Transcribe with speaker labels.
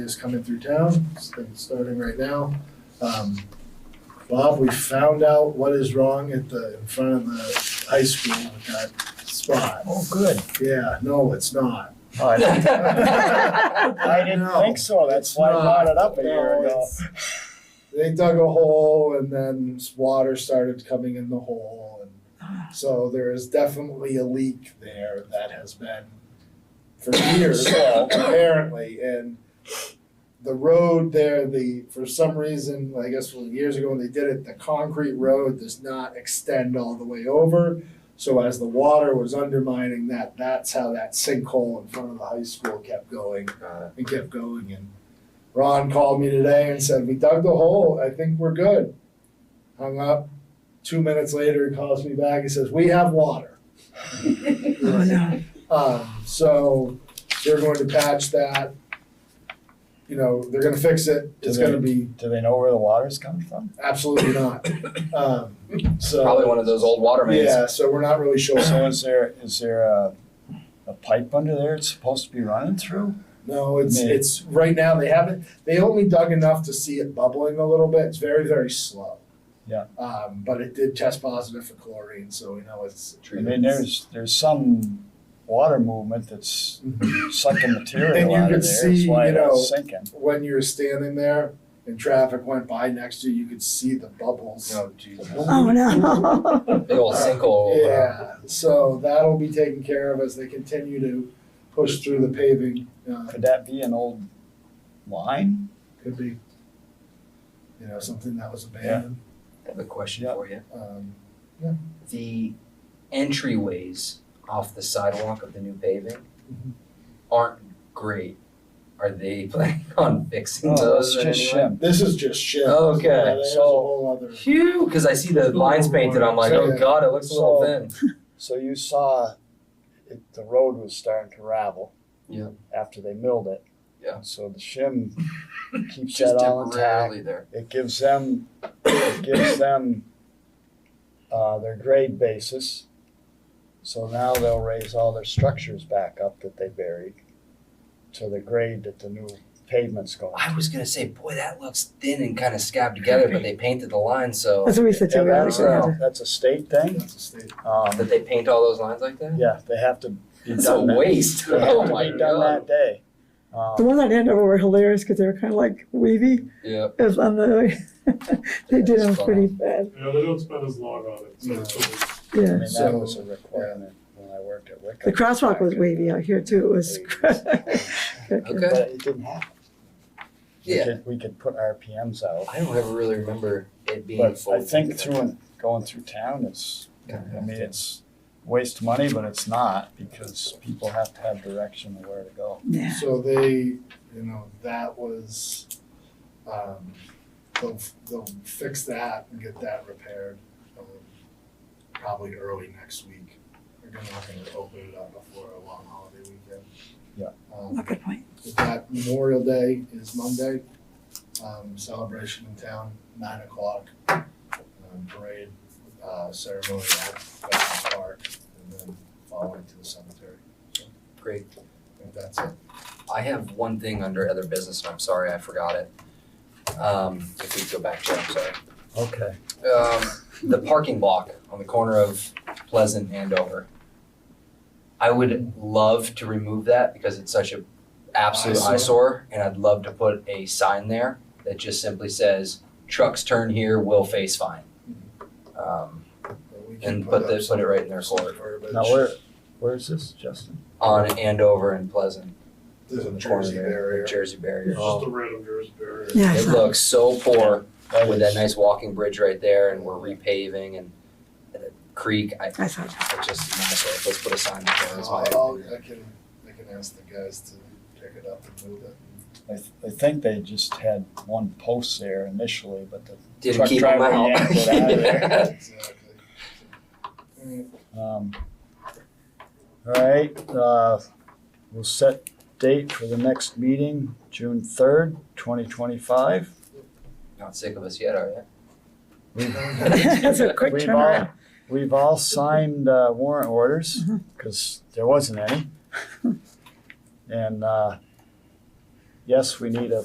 Speaker 1: is coming through town, it's been starting right now. Um, Bob, we found out what is wrong at the, in front of the high school with that spot.
Speaker 2: Oh, good.
Speaker 1: Yeah, no, it's not.
Speaker 2: Oh, I didn't- I
Speaker 1: No.
Speaker 2: didn't think so, that's why I
Speaker 1: It's
Speaker 2: brought
Speaker 1: not.
Speaker 2: it up a year
Speaker 1: No,
Speaker 2: ago.
Speaker 1: it's- They dug a hole and then s- water started coming in the hole and so there is definitely a leak there that has been for years apparently and the road there, the, for some reason, I guess well, years ago when they did it, the concrete road does not extend all the way over. So as the water was undermining that, that's how that sinkhole in front of the high school kept going and kept going. And Ron called me today and said, we dug the hole, I think we're good. Hung up, two minutes later, he calls me back, he says, we have water.
Speaker 3: Oh, no.
Speaker 1: Um, so they're going to patch that. You know, they're gonna fix it, it's gonna be
Speaker 2: Do they know where the water's coming from?
Speaker 1: absolutely not. Um, so.
Speaker 4: Probably one of those old water mains.
Speaker 1: Yeah, so we're not really sure.
Speaker 2: So is there, is there a, a pipe under there it's supposed to be running through?
Speaker 1: No, it's,
Speaker 2: Yeah.
Speaker 1: it's, right now, they haven't, they only dug enough to see it bubbling a little bit, it's very, very slow.
Speaker 2: Yeah.
Speaker 1: Um, but it did test positive for chlorine, so we know it's.
Speaker 2: I mean, there's, there's some water movement that's sucking
Speaker 1: And
Speaker 2: material
Speaker 1: you
Speaker 2: out
Speaker 1: could
Speaker 2: of there, that's
Speaker 1: see,
Speaker 2: why
Speaker 1: you
Speaker 2: it's
Speaker 1: know-
Speaker 2: sinking.
Speaker 1: When you were standing there and traffic went by next to you, you could see the bubbles.
Speaker 4: Oh, Jesus.
Speaker 3: Oh, no.
Speaker 4: Big old sinkhole. over there.
Speaker 1: Yeah, so that'll be taken care of as they continue to push through the paving, uh,
Speaker 2: Could that be an old line?
Speaker 1: could be, you know, something that was abandoned.
Speaker 4: I have a question
Speaker 2: Yeah.
Speaker 4: for you.
Speaker 1: Um,
Speaker 4: The entryways off the sidewalk of the new paving
Speaker 2: Mm-hmm.
Speaker 4: aren't great. Are they planning on fixing
Speaker 2: No,
Speaker 4: those
Speaker 2: Oh, that's
Speaker 4: in
Speaker 2: just
Speaker 4: any way?
Speaker 2: shim.
Speaker 1: This is just shit.
Speaker 4: Okay,
Speaker 1: Yeah, there's a
Speaker 2: so-
Speaker 1: whole other.
Speaker 4: Phew, because I see the lines painted. I'm like, oh god, it looks a little
Speaker 2: So-
Speaker 4: thin.
Speaker 2: So you saw it, the road was starting to ravel.
Speaker 4: Yeah.
Speaker 2: After they milled it.
Speaker 4: Yeah.
Speaker 2: So the shim keeps
Speaker 4: Just
Speaker 2: that all intact.
Speaker 4: temporarily there.
Speaker 2: It gives them, it gives them, uh, their grade basis. So now they'll raise all their structures back up that they buried to the grade that the new pavement's going.
Speaker 4: I was gonna say, boy, that looks thin and kind of scabbed together, but they painted the line so
Speaker 3: That's what we said to
Speaker 2: Yeah, that's,
Speaker 3: her.
Speaker 2: a- that's a state thing.
Speaker 1: That's a state.
Speaker 2: Um,
Speaker 4: that they paint all those lines like that.
Speaker 2: yeah, they have to be
Speaker 4: It's a
Speaker 2: done that.
Speaker 4: waste.
Speaker 2: They
Speaker 4: Oh
Speaker 2: have
Speaker 4: my
Speaker 2: to be done
Speaker 4: god.
Speaker 2: that day.
Speaker 3: The
Speaker 2: Um,
Speaker 3: ones on Andover were hilarious because they were kind of like wavy.
Speaker 4: Yeah.
Speaker 3: It was on the, they did them pretty bad.
Speaker 5: Yeah, they don't spend as long on it, so it's only
Speaker 2: I
Speaker 3: Yeah.
Speaker 2: mean, that
Speaker 1: So-
Speaker 2: was a requirement when I worked at Wickham.
Speaker 3: The crosswalk was wavy out here too. It was.
Speaker 4: Okay.
Speaker 2: But it didn't happen. We
Speaker 4: Yeah.
Speaker 2: could- We could put RPMs out,
Speaker 4: I don't ever really remember it being
Speaker 2: but
Speaker 4: full.
Speaker 2: I think through, and going through town, it's, I mean, it's waste of money, but it's not because people have to have direction of where to go.
Speaker 3: Yeah.
Speaker 1: So they, you know, that was, um, they'll, they'll fix that and get that repaired, um, probably early next week. They're gonna, not gonna open it up before a long holiday weekend.
Speaker 2: Yeah.
Speaker 1: Um,
Speaker 3: Good point.
Speaker 1: we've got Memorial Day is Monday, um, celebration in town, nine o'clock, um, parade, uh, ceremony at Veterans Park, and then following to the cemetery.
Speaker 4: Great.
Speaker 1: I think that's it.
Speaker 4: I have one thing under other business, and I'm sorry I forgot it. Um, if we go back to, it, I'm sorry.
Speaker 2: Okay.
Speaker 4: Um, the parking block on the corner of Pleasant and Dover. I would love to remove that because it's such a absolute
Speaker 1: Eyesore.
Speaker 4: eyesore, and I'd love to put a sign there that just simply says, "Trucks turn here, will face fine." Um,
Speaker 1: But we can
Speaker 4: and put
Speaker 1: up
Speaker 4: the, put it right in their
Speaker 1: some
Speaker 4: corner
Speaker 1: verbiage.
Speaker 2: Now, where, where is this, Justin?
Speaker 4: on Andover and Pleasant,
Speaker 1: There's a
Speaker 4: the corner
Speaker 1: Jersey
Speaker 4: there,
Speaker 1: barrier.
Speaker 4: Jersey barrier.
Speaker 5: just
Speaker 2: Oh.
Speaker 5: a random jersey barrier.
Speaker 3: Yeah. I
Speaker 4: It
Speaker 3: saw.
Speaker 4: looks so poor. with that
Speaker 2: is-
Speaker 4: nice walking bridge right there and we're repaving and and the creek, I,
Speaker 3: I saw. that.
Speaker 4: I just, myself, let's put a sign up there as
Speaker 1: I'll,
Speaker 2: Oh,
Speaker 1: Uh,
Speaker 4: well.
Speaker 1: I'll- I can, I can ask the guys to pick it up and move it.
Speaker 2: I, th- I think they just had one post there initially, but the
Speaker 4: Didn't
Speaker 2: truck
Speaker 4: keep them
Speaker 2: driver
Speaker 4: out.
Speaker 2: yanked it out of there.
Speaker 1: Exactly. Alright,
Speaker 2: Um, all right, uh, we'll set date for the next meeting, June third, twenty twenty-five.
Speaker 4: Not sick of us yet, are you?
Speaker 3: That's a quick
Speaker 2: We've
Speaker 3: turnaround.
Speaker 2: all, we've all signed uh, warrant orders, because there wasn't any. And, uh, yes, we need a